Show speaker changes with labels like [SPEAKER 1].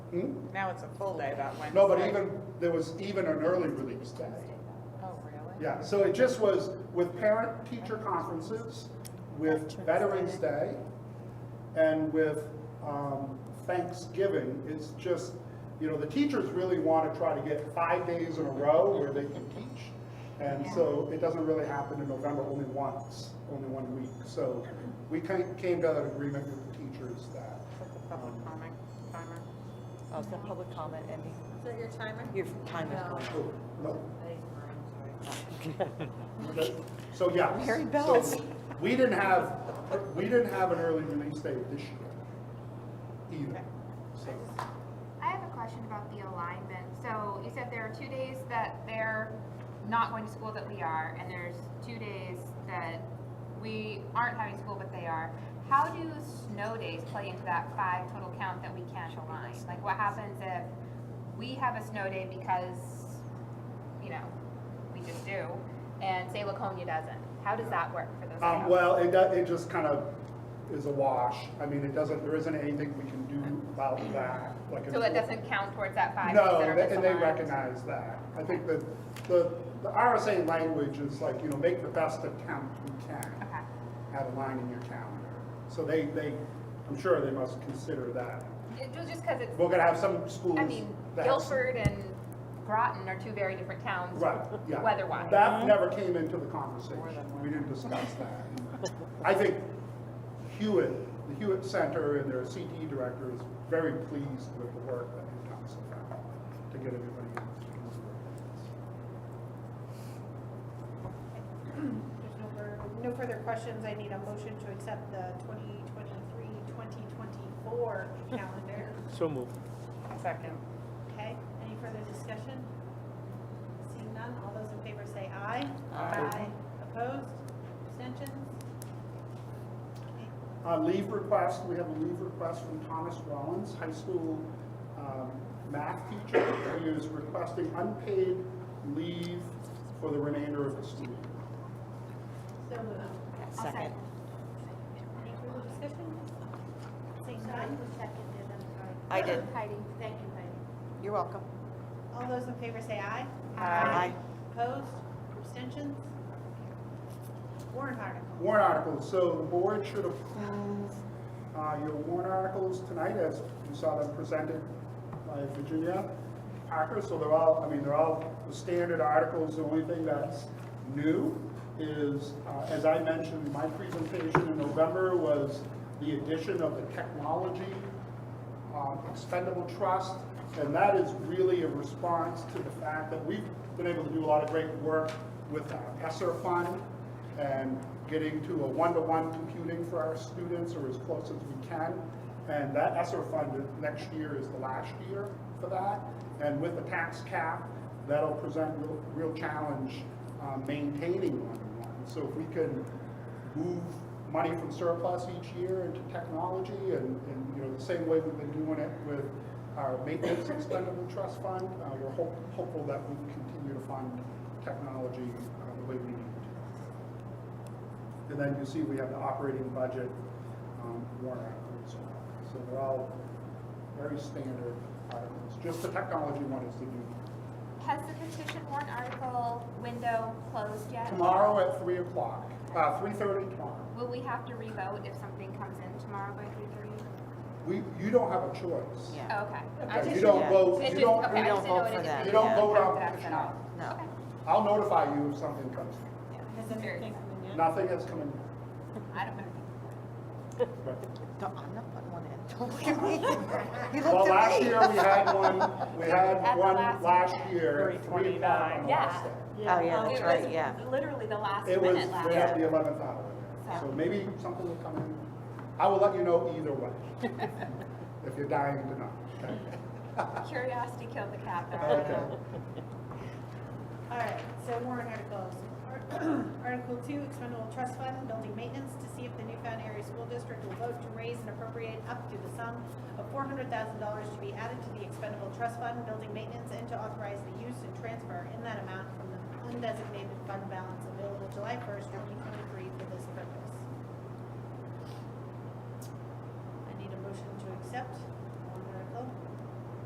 [SPEAKER 1] Hmm?
[SPEAKER 2] Now it's a full day that Wednesday.
[SPEAKER 1] No, but even, there was even an early release day.
[SPEAKER 2] Oh, really?
[SPEAKER 1] Yeah, so it just was with parent-teacher conferences, with Veterans Day, and with um, Thanksgiving. It's just, you know, the teachers really want to try to get five days in a row where they can teach. And so it doesn't really happen in November, only once, only one week. So we ki- came to an agreement with the teachers that, um,
[SPEAKER 2] Put the public comment timer.
[SPEAKER 3] Oh, the public comment, Andy.
[SPEAKER 4] Is that your timer?
[SPEAKER 3] Your time is going.
[SPEAKER 1] oh, no,
[SPEAKER 4] Sorry.
[SPEAKER 1] Okay, So, yeah.
[SPEAKER 3] Mary Bells.
[SPEAKER 1] So, We didn't have, we didn't have an early release date this year either. So,
[SPEAKER 5] I have a question about the alignment. So you said there are two days that they're not going to school that we are, and there's two days that we aren't having school but they are. How do snow days play into that five total count that we can't align? Like what happens if we have a snow day because, you know, we just do, and say Laconia doesn't? How does that work for those
[SPEAKER 1] Um,
[SPEAKER 5] counts?
[SPEAKER 1] well, it, do- it just kind of is a wash. I mean, it doesn't, there isn't anything we can do about that. Like
[SPEAKER 5] So
[SPEAKER 1] it's-
[SPEAKER 5] it doesn't count towards that five days
[SPEAKER 1] No,
[SPEAKER 5] that are
[SPEAKER 1] they- and they
[SPEAKER 5] misaligned?
[SPEAKER 1] recognize that. I think that the, the RSA language is like, you know, make the best attempt you can.
[SPEAKER 5] Okay.
[SPEAKER 1] Have a line in your calendar. So they, they, I'm sure they must consider that.
[SPEAKER 5] It was just because it's
[SPEAKER 1] We're gonna have some schools.
[SPEAKER 5] I mean,
[SPEAKER 1] that have-
[SPEAKER 5] Guilford and Groton are two very different towns.
[SPEAKER 1] Right, yeah.
[SPEAKER 5] Weather-wise.
[SPEAKER 1] That never came into the conversation. We didn't discuss that. I think Hewitt, the Hewitt Center and their CTE director is very pleased with the work that New Thompson found to get everybody. in.
[SPEAKER 6] There's no further, no further questions. I need a motion to accept the 2023-2024 calendar.
[SPEAKER 7] So move.
[SPEAKER 2] Second.
[SPEAKER 6] Okay, any further discussion? Seeing none, all those in favor say aye. Aye. Opposed? Abstentions? Okay.
[SPEAKER 1] Uh, leave request, we have a leave request from Thomas Rollins, high school, um, math teacher, who is requesting unpaid leave for the remainder of the school year.
[SPEAKER 6] So moved.
[SPEAKER 3] Second.
[SPEAKER 6] Any further discussion? Seeing none?
[SPEAKER 3] I did.
[SPEAKER 4] Heidi, thank you, Heidi.
[SPEAKER 3] You're welcome.
[SPEAKER 6] All those in favor say aye.
[SPEAKER 3] Aye.
[SPEAKER 6] Opposed? Abstentions? Warrant article.
[SPEAKER 1] Warrant articles, so the board should approve uh, your warrant articles tonight, as you saw them presented by Virginia Parker, so they're all, I mean, they're all the standard articles, the only thing that's new is, uh, as I mentioned, in my presentation in November was the addition of the technology um, expendable trust, and that is really a response to the fact that we've been able to do a lot of great work with our ESSER fund and getting to a one-to-one computing for our students or as close as we can. And that ESSER fund next year is the last year for that. And with the tax cap, that'll present real, real challenge um, maintaining one-to-one. So if we can move money from surplus each year into technology and, and, you know, the same way we've been doing it with our maintenance expendable trust fund, uh, we're hope, hopeful that we can continue to fund technology, uh, the way we need to. And then you see we have the operating budget, um, warrant articles as well. So they're all very standard articles. Just the technology one is the new.
[SPEAKER 5] Has the petition warrant article window closed yet?
[SPEAKER 1] Tomorrow at three o'clock, uh, three thirty tomorrow.
[SPEAKER 5] Will we have to revote if something comes in tomorrow by three thirty?
[SPEAKER 1] We, you don't have a choice.
[SPEAKER 3] Yeah.
[SPEAKER 5] Oh, Okay. I
[SPEAKER 1] Okay,
[SPEAKER 5] just-
[SPEAKER 1] You don't
[SPEAKER 3] yeah.
[SPEAKER 1] vote,
[SPEAKER 5] it
[SPEAKER 1] you
[SPEAKER 5] just-
[SPEAKER 1] don't,
[SPEAKER 5] okay, I
[SPEAKER 3] we
[SPEAKER 5] just
[SPEAKER 3] don't
[SPEAKER 5] didn't know
[SPEAKER 3] vote
[SPEAKER 5] it
[SPEAKER 3] for
[SPEAKER 5] if
[SPEAKER 3] that.
[SPEAKER 5] it
[SPEAKER 1] you don't
[SPEAKER 5] didn't
[SPEAKER 1] vote
[SPEAKER 5] come
[SPEAKER 1] on
[SPEAKER 5] to us
[SPEAKER 1] petition.
[SPEAKER 5] at all.
[SPEAKER 3] No.
[SPEAKER 5] Okay.
[SPEAKER 1] I'll notify you if something comes. Nothing has come in.
[SPEAKER 5] I don't know.
[SPEAKER 1] Right.
[SPEAKER 3] Don't- I'm not putting one in. Don't look at me. You
[SPEAKER 1] Well,
[SPEAKER 3] looked at
[SPEAKER 1] last
[SPEAKER 3] me. Oh,
[SPEAKER 1] year, we had one, we
[SPEAKER 5] At
[SPEAKER 1] had
[SPEAKER 5] the
[SPEAKER 1] one
[SPEAKER 5] last
[SPEAKER 1] last
[SPEAKER 5] minute.
[SPEAKER 1] year. at three o'clock on the last
[SPEAKER 5] Yeah.
[SPEAKER 1] day.
[SPEAKER 3] Oh, yeah, that's
[SPEAKER 5] It
[SPEAKER 3] right,
[SPEAKER 5] was
[SPEAKER 3] yeah.
[SPEAKER 5] Literally the last
[SPEAKER 1] It was
[SPEAKER 5] minute last.
[SPEAKER 1] right at the
[SPEAKER 3] Yeah.
[SPEAKER 1] eleventh hour. So maybe something will come in. I will let you know either way, if you're dying to know. okay?
[SPEAKER 5] Curiosity killed the cat there.
[SPEAKER 1] Okay.
[SPEAKER 6] All right, so warrant articles. Ar- Article two, expendable trust fund, building maintenance, to see if the Newfound Area School District will vote to raise and appropriate up to the sum of four hundred thousand dollars to be added to the expendable trust fund, building maintenance, and to authorize the use and transfer in that amount from the undesignated fund balance available July first, twenty twenty-three for this purpose. I need a motion to accept.